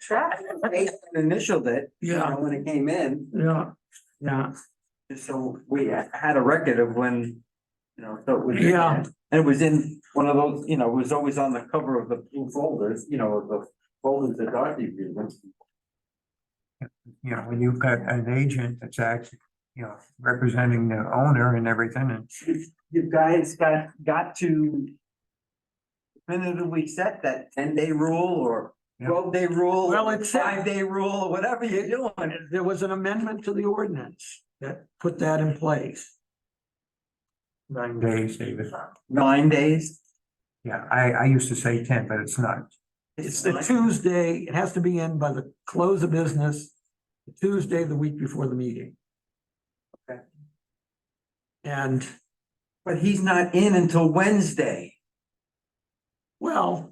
traffic, they initialed it, you Yeah, know, when it came in, yeah, yeah, just so we had a record of when, you know, so it was. Yeah. And it was in one of those, you know, it was always on the cover of the blue folders, you know, of the folders that Dorothy viewed. you know, when you've got an agent that's actually, you know, representing the owner and everything and. You guys got, got to definitively set that ten day rule or Yeah. twelve day rule. Well, it's- Five day rule or whatever you do. and there was an amendment to the ordinance that put that in place. Nine days, David. Nine days. Yeah, I, I used to say ten, but it's not. It's the Nine. Tuesday, it has to be in by the close of business, Tuesday, the week before the meeting. Okay. And, But he's not in until Wednesday. well,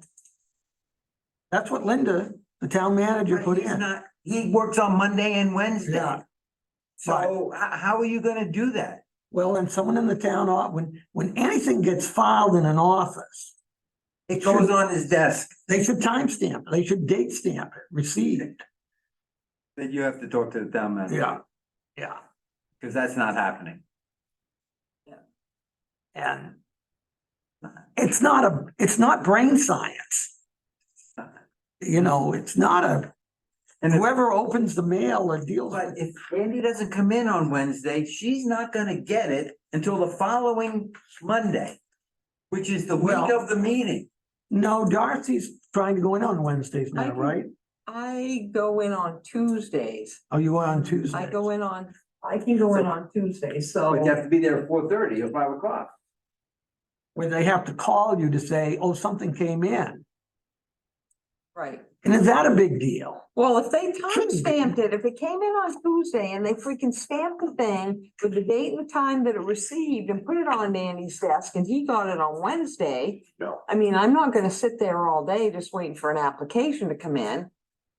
that's what Linda, the town manager, But put he's in. not, he works on Monday and Wednesday. Yeah. So h- how are you gonna do that? Well, and someone in the town, au- when, when anything gets filed in an office, It goes on his desk. they should timestamp, it, they should date stamp it, received. That you have to talk to the town manager. Yeah. Cause that's not happening. And it's not a, it's not brain science. You know, it's not a, And if- whoever opens the mail or deals but with it, if Andy doesn't come in on Wednesday, she's not gonna get it until the following Monday. Which is the week Well- of the meeting. no, Darcy's trying to go in on Wednesdays I now, can- right? I go in on Tuesdays. Oh, you are on Tuesday? I go in on, I can go in on Tuesdays, so. But you Oh, have to be there at four thirty or five o'clock. Where they have to call you to say, oh, something came in. Right. And is that a big deal? Well, if they Shouldn't time be. stamped it, if it came in on Tuesday and they freaking stamped the thing with the date and the time that it received and put it on Danny's desk and he got it on Wednesday. No. I mean, I'm not gonna sit there all day just waiting for an application to come in.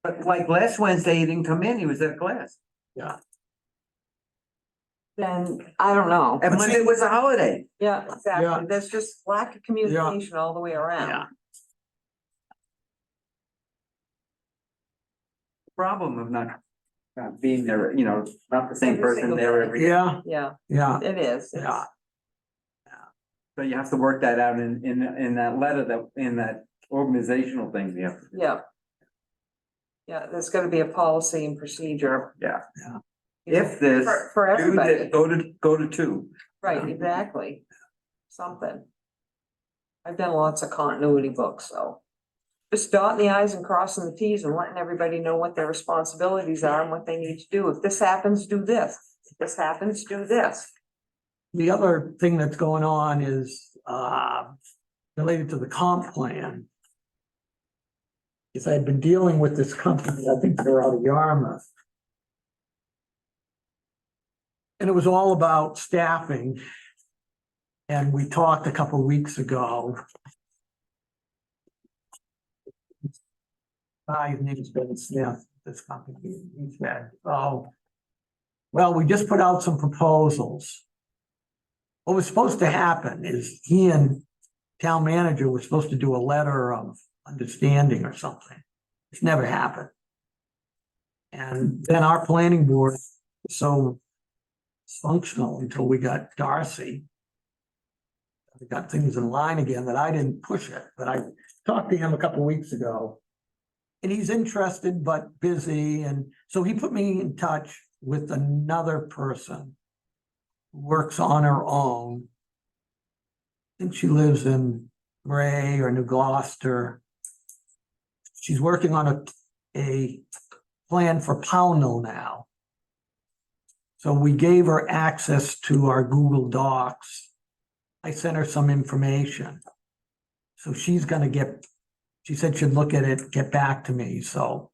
But like last Wednesday, he didn't come in, he was at class. Then, I don't know. And But see- Monday was a holiday. Yeah, Yeah. exactly. There's just lack of communication all the way around. problem of not not being there, you know, not the same Every person single there day. every day. Yeah, Yeah, yeah, it is. It's- yeah. So you have to work that out in in in that letter that in that organizational thing, yeah. Yeah. Yeah, there's gotta be a policy and procedure. Yeah. Yeah. If this For, for Do everybody, that, go to, go to two. right, exactly, something. I've done lots of continuity books, so. Just dotting the i's and crossing the t's and letting everybody know what their responsibilities are and what they need to do. If this happens, do this. If this happens, do this. The other thing that's going on is, uh, related to the comp plan. Is I've been dealing with this company, I think they're out of Yarmouth. And it was all about staffing. And we talked a couple weeks ago. Guy's name is Ben Smith, this company, he said, oh. Well, we just put out some proposals what was supposed to happen is he and town manager were supposed to do a letter of understanding or something. It's never happened. And then our planning board, was so functional until we got Darcy. We got things in line again that I didn't push it, but I talked to him a couple weeks ago. And he's interested but busy, and so he put me in touch with another person works on her own. I think she lives in Gray or New Gloucester. She's working on a, a plan for Pownell now. So we gave her access to our Google Docs. I sent her some information. So she's gonna get, she said she'd look at it, get back to me, so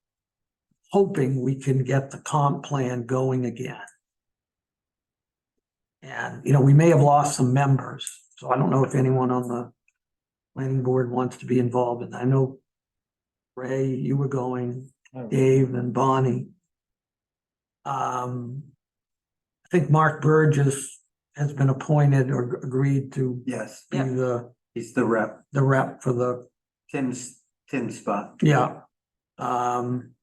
hoping we can get the comp plan going again. And, you know, we may have lost some members, so I don't know if anyone on the planning board wants to be involved, and I know Ray, you were going, Dave and Bonnie. Um, I think Mark Burgess has been appointed or agreed to Yes. be Yeah. the, He's the rep, the rep for the, Tim's, Tim's spot. yeah. Um,